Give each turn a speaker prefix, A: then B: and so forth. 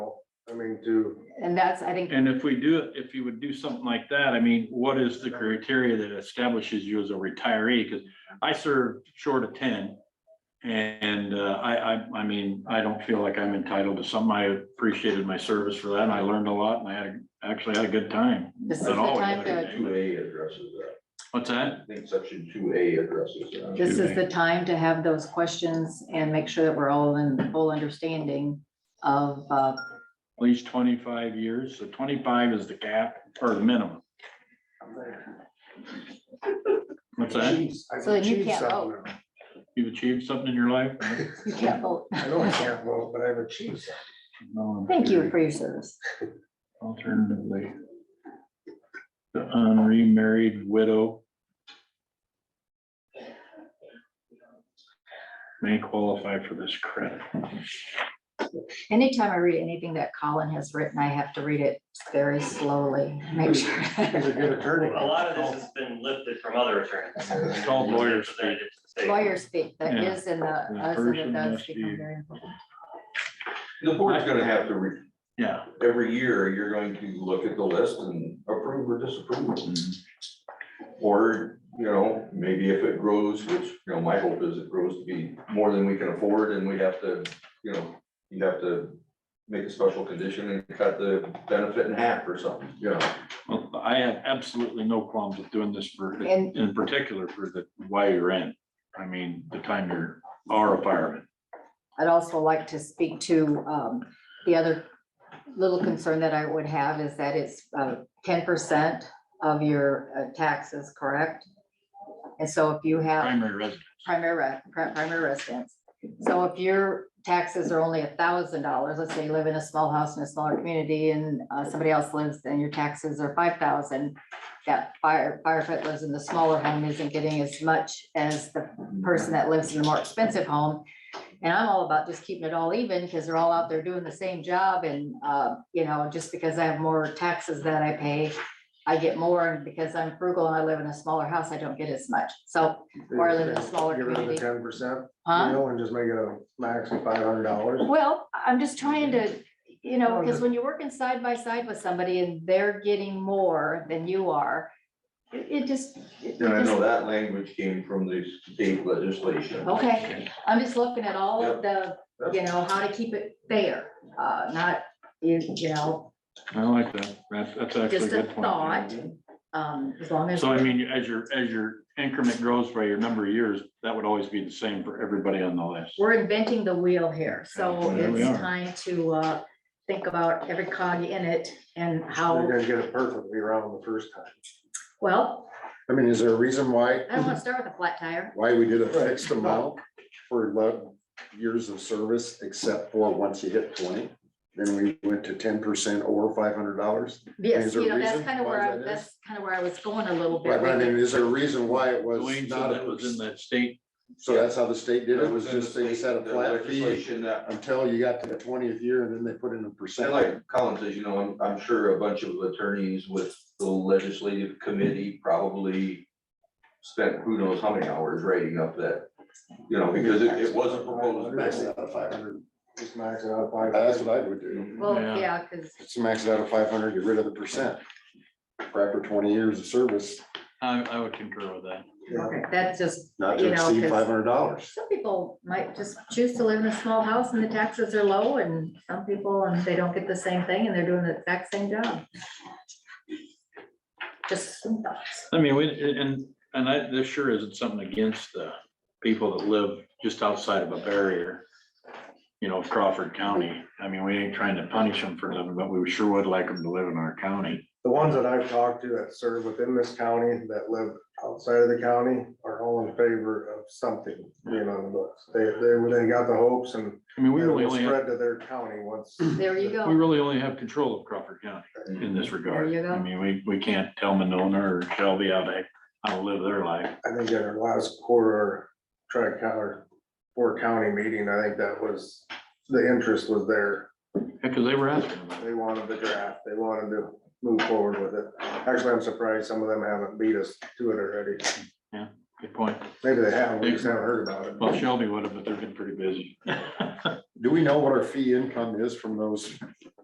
A: I mean, do,
B: And that's, I think,
C: And if we do, it, if you would do something like that, I mean, what is the criteria that establishes you as a retiree? Because I served short of ten. And uh, I, I, I mean, I don't feel like I'm entitled to something. I appreciated my service for that. and I learned a lot and I had, a- actually had a good time.
B: this is the
C: Not always had
B: time
C: a good
B: to,
C: day,
D: Two
C: but-
D: A addresses that.
C: What's that?
D: I think section two A addresses that.
B: this is the time to have those questions and make sure that we're all in full understanding of, uh,
C: At least twenty-five years. So twenty-five is the cap or the minimum. What's that?
B: So then you can't vote.
C: You've achieved something in your life?
B: you can't vote.
A: I know I can't vote, but I've achieved something.
C: No, I'm
B: Thank
C: sure.
B: you for your service.
C: Alternatively. The unremarried widow. May qualify for this credit.
B: Anytime I read anything that Colin has written, I have to read it very slowly, make sure.
A: He's a good attorney.
E: A lot of this has been lifted from other attorneys.
C: It's called lawyer's fee.
B: Lawyer speak, that
C: Yeah.
B: is in the,
C: The
B: us
C: person
B: and the does
C: must be-
B: become very important.
D: The board's gonna have to, re-
C: Yeah.
D: every year, you're going to look at the list and approve or disapprove. Or, you know, maybe if it grows, which, you know, my hope is it grows to be more than we can afford and we have to, you know, you have to make a special condition and cut the benefit in half or something, you know.
C: Well, I have absolutely no qualms with doing this for,
B: And-
C: in particular for the, why you're in. I mean, the time you're, are a fireman.
B: I'd also like to speak to, um, the other little concern that I would have is that it's, uh, ten percent of your uh, taxes, correct? And so if you have
C: primary residence.
B: primary, re- pri- primary residence, so if your taxes are only a thousand dollars, let's say you live in a small house in a smaller community and, uh, somebody else lives and your taxes are five thousand, that fire, firefighter lives in the smaller home isn't getting as much as the person that lives in the more expensive home. And I'm all about just keeping it all even because they're all out there doing the same job and, uh, you know, just because I have more taxes that I pay, I get more and because I'm frugal and I live in a smaller house, I don't get as much. So, Or I live in a smaller
A: Get rid of the
B: community.
A: ten percent, you
B: huh?
A: know, and just make it a max of five hundred dollars.
B: Well, I'm just trying to, you know, because when you're working side by side with somebody and they're getting more than you are, it it just. it-
D: And I
B: it
D: know
B: just-
D: that language came from the state legislation.
B: Oh. Okay, I'm just looking at all of the, you know, how to keep it fair, uh, not, you you know,
C: I like that. That's, that's actually a
B: just a
C: good point.
B: thought. Um, as long as.
C: So I mean, as your, as your increment grows by your number of years, that would always be the same for everybody on the list.
B: we're inventing the wheel here, so
C: There we
B: it's
C: are.
B: time to, uh, think about every cog in it and
A: You're
B: how,
A: gonna get it perfectly wrong the first time.
B: well,
F: I mean, is there a reason why,
B: I don't wanna start with a flat tire.
F: why we did a fixed amount for lo- years of service, except for once you hit twenty? Then we went to ten percent over five hundred dollars.
B: Yes,
F: Is there
B: you
F: a
B: know, that's
F: reason
B: kind of
F: why
B: where, I
F: that is?
B: that's kind of where I was going a little bit.
F: But I mean, is there a reason why it was
C: Dwayne
F: not
C: said
F: a
C: that was in
F: percent?
C: that state.
F: So that's how the state did it, was
D: in the
F: just they
D: state-
F: set a
D: the
F: flat fee
D: legislation that-
F: until you got to the twentieth year and then they put in a
D: And
F: percent.
D: like Colin says, you know, I'm, I'm sure a bunch of attorneys with the legislative committee probably spent who knows how many hours writing up that, you know, because it, it was a proposed.
F: Max
D: bill.
F: it out at five hundred.
A: Just max it out at five.
F: That's what I would do.
B: Well,
C: Yeah.
B: yeah, because
F: Just max it out at five hundred, get rid of the percent. For After twenty years of service,
C: I, I would concur with that.
A: Yeah.
B: that's just,
F: not
B: You
F: to
B: know,
F: exceed
B: 'cause-
F: five hundred dollars.
B: some people might just choose to live in a small house and the taxes are low and some people, and they don't get the same thing and they're doing the exact same job. Just some thoughts.
C: I mean, we, and, and I, this sure isn't something against the people that live just outside of a barrier. You know, Crawford County. I mean, we ain't trying to punish them for living, but we sure would like them to live in our county.
A: The ones that I've talked to that serve within this county, that live outside of the county, are all in favor of something being on the books. They, they, they got the hopes and
C: I mean, we
A: it
C: really
A: will
C: only, have-
A: spread to their county once.
B: There you
C: we
B: go.
C: really only have control of Crawford County in
F: Mm-hmm.
C: this regard.
B: you go.
C: I mean, we, we can't tell Monona or Shelby how to, how to live their life.
A: I think at our last quarter, tri-county, or four county meeting, I think that was, the interest was there.
C: Because they were asking about it.
A: They wanted the draft, they wanted to move forward with it. Actually, I'm surprised some of them haven't beat us to it already.
C: Good point.
A: Maybe they have, we just haven't heard about it.
C: Well, Shelby would have, but they've been pretty busy.
F: Do we know what our fee income is from those